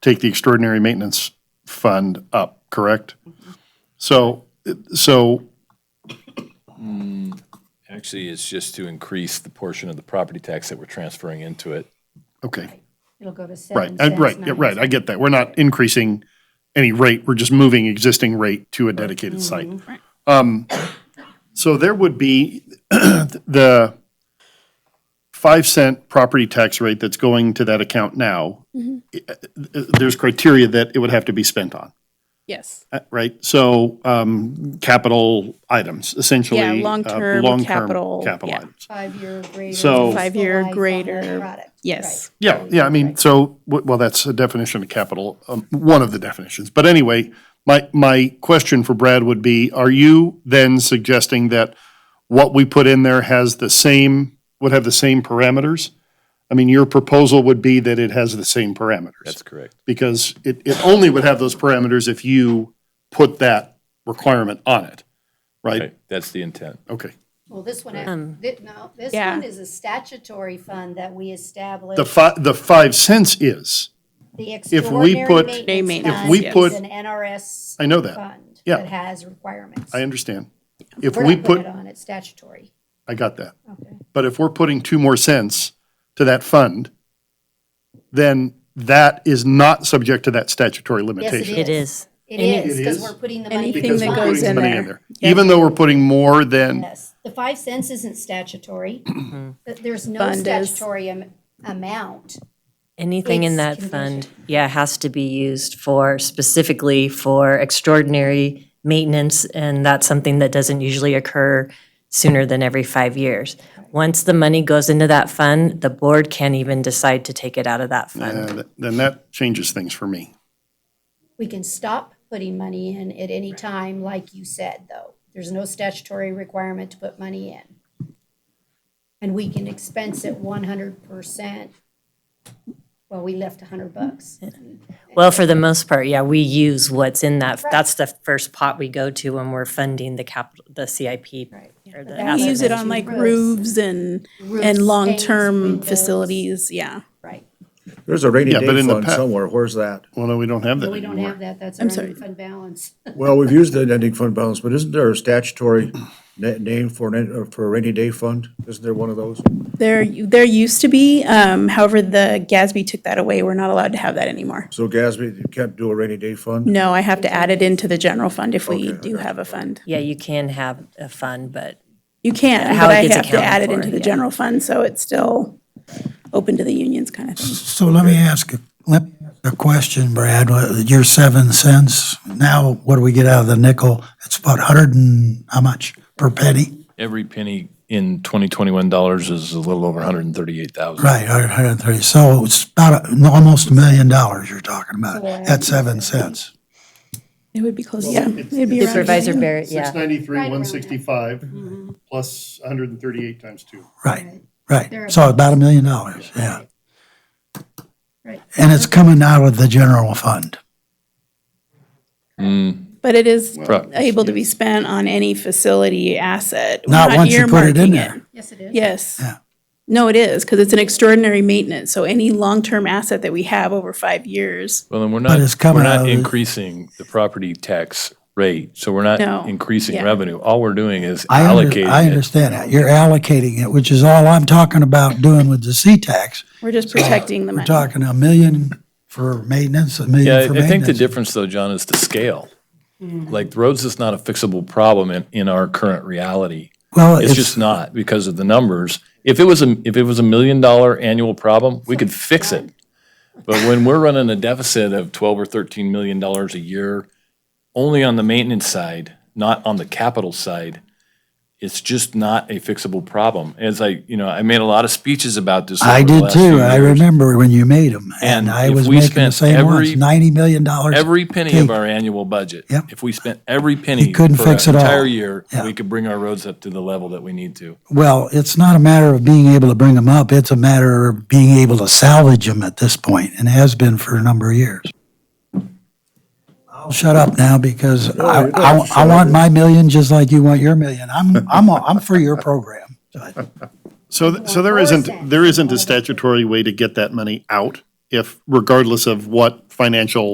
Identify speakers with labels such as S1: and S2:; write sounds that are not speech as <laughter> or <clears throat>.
S1: take the extraordinary maintenance fund up, correct? So, so,
S2: Actually, it's just to increase the portion of the property tax that we're transferring into it.
S1: okay,
S3: It'll go to seven
S1: right,
S3: cents.
S1: uh, right, yeah,
S3: nine
S1: right, I get that. We're not increasing any rate, we're just moving existing rate to a dedicated site. Um, So there would be <clears throat> the five cent property tax rate that's going to that account now. eh, eh, There's criteria that it would have to be spent on.
S4: Yes.
S1: Uh, Right, so um, capital items, essentially.
S4: Yeah,
S1: uh,
S4: long-term
S1: long-term
S4: capital,
S1: Capital
S4: yeah.
S1: items.
S3: Five-year grader.
S5: Oh.
S1: So-
S4: Five-year
S3: fiscal life on that
S4: grader,
S3: product.
S4: Yes.
S1: Yeah, yeah, I mean, so, w- well, that's a definition of capital, um, one of the definitions. But anyway, my, my question for Brad would be, are you then suggesting that what we put in there has the same, would have the same parameters? I mean, your proposal would be that it has the same parameters.
S2: That's correct.
S1: because it, it only would have those parameters if you put that requirement on it, right?
S2: Right, that's the intent.
S1: Okay.
S3: Well, this one, thi- no, this
S4: Um, yeah.
S3: one is a statutory fund that we
S1: The
S3: established.
S1: fi, the five cents is,
S3: The
S1: we put-
S3: extraordinary
S4: Day
S3: maintenance
S4: maintenance,
S3: fund
S1: we put-
S3: is an NRS
S1: I know that,
S3: fund
S1: Yeah.
S3: that has requirements.
S1: I understand. If
S3: We're
S1: we
S3: not putting it
S1: put,
S3: on, it's statutory.
S1: I got that.
S3: Okay.
S1: But if we're putting two more cents to that fund, then that is not subject to that statutory
S3: Yes,
S1: limitation.
S3: it
S5: It
S3: is.
S5: is.
S3: It
S4: Any-
S3: is,
S1: It
S3: because
S1: is?
S3: we're putting the money.
S4: Anything
S1: Because
S4: that
S1: we're
S4: goes
S1: putting
S4: in
S1: money
S4: there. Yeah.
S1: Even though we're putting more than,
S3: Yes, the five cents isn't statutory. Th- There's no
S4: Mm-hmm. Fund is.
S3: statutory am- amount.
S5: Anything
S3: It's
S5: in that
S3: condition.
S5: fund, yeah, has to be used for, specifically for extraordinary maintenance, and that's something that doesn't usually occur sooner than every five years. Once the money goes into that fund, the board can't even decide to take it out of that fund.
S1: uh, then that changes things for me.
S3: We can stop putting money in at any time, like you said, though. There's no statutory requirement to put money in. And we can expense it one hundred percent. Well, we left a hundred bucks.
S5: Well, for the most part, yeah, we use what's in that, that's the first pot we go to when we're funding the capital, the CIP.
S3: Right.
S5: or the
S3: But that's
S4: We
S5: asset
S4: use it on like roofs and,
S3: Roofs,
S4: and long-term
S3: stains,
S4: facilities, yeah.
S3: Right.
S6: There's a rainy
S1: Yeah, but
S6: day
S1: in the
S6: fund
S1: pa-
S6: somewhere, where's that?
S1: Well, no, we don't have that
S3: But we don't
S1: anymore.
S3: have that. That's
S4: I'm
S3: our
S4: sorry.
S3: fund balance.
S6: Well, we've used the ending fund balance, but isn't there a statutory <clears throat> na- name for an, uh, for a rainy day fund? Isn't there one of those?
S4: There, there used to be, um, however, the Gatsby took that away. We're not allowed to have that anymore.
S6: So Gatsby, you can't do a rainy day fund?
S4: No, I have to add it into the general fund if we
S6: Okay, I
S4: do
S6: gotcha.
S4: have a fund.
S5: Yeah, you can have a fund, but
S4: You can,
S5: How
S4: but
S5: it
S4: I
S5: gets
S4: have to add
S5: accounted
S4: it
S5: for,
S4: into the
S5: yeah.
S4: general fund, so it's still open to the unions kind of thing.
S7: So let me ask, a- let, me ask a question, Brad, What- your seven cents, now what do we get out of the nickel? It's about hundred and, how much per penny?
S2: Every penny in 2021 dollars is a little over 138,000.
S7: Right, hundred and thirty, so it's about, a- almost a million dollars you're talking about at seven cents.
S4: It would be close, yeah. It'd be around
S5: Supervisor Barrett,
S1: Six
S5: yeah,
S1: ninety-three, one sixty-five, plus hundred and thirty-eight times two.
S7: Right, right, so about a million dollars, yeah.
S3: Right.
S7: And it's coming out of the general fund.
S4: But it is
S2: Pro-
S4: able to be spent on any facility asset. We're
S7: Not once you put it in
S4: earmarking
S7: there.
S3: Yes, it is.
S4: Yes.
S7: Yeah.
S4: No, it is, because it's an extraordinary maintenance. So any long-term asset that we have over five years,
S2: Well, then we're not,
S7: it's
S2: we're
S7: coming out
S2: not
S7: of the-
S2: increasing the property tax rate, so we're not
S4: No,
S2: increasing
S4: yeah.
S2: revenue. All we're doing is
S7: I under- I
S2: allocating it.
S7: understand that, you're allocating it, which is all I'm talking about doing with the C-Tax.
S4: we're just protecting the
S7: We're
S4: money.
S7: talking a million for maintenance, a million
S2: Yeah,
S7: for
S2: I- I think the
S7: maintenance.
S2: difference though, John, is the scale.
S4: Mm-hmm.
S2: Like roads is not a fixable problem in, in our current reality.
S7: Well,
S2: It's just not because of the numbers. If it was a, if it was a million dollar annual problem, we could fix it. But when we're running a deficit of twelve or thirteen million dollars a year, only on the maintenance side, not on the capital side, it's just not a fixable problem. As I, you know, I made a lot of speeches about this.
S7: I
S2: over the
S7: did
S2: last
S7: too.
S2: few
S7: I
S2: years.
S7: remember when you made them and
S2: And
S7: I
S2: if
S7: was
S2: we
S7: making the
S2: spent
S7: same ones,
S2: every-
S7: ninety million dollars.
S2: Every penny of our annual budget.
S7: Yep.
S2: If we spent every penny for an
S7: couldn't fix it all.
S2: entire year,
S7: Yeah.
S2: we could bring our roads up to the level that we need to.
S7: Well, it's not a matter of being able to bring them up. It's a matter of being able to salvage them at this point and has been for a number of years. I'll shut up now because I,
S6: you don't
S7: I,
S6: have to
S7: I
S6: shut
S7: want
S6: up.
S7: my million just like you want your million. I'm, I'm, I'm for your program.
S1: So, th- so there
S3: Or
S1: isn't,
S3: cents.
S1: there isn't a statutory way to get that money out. if regardless of what financial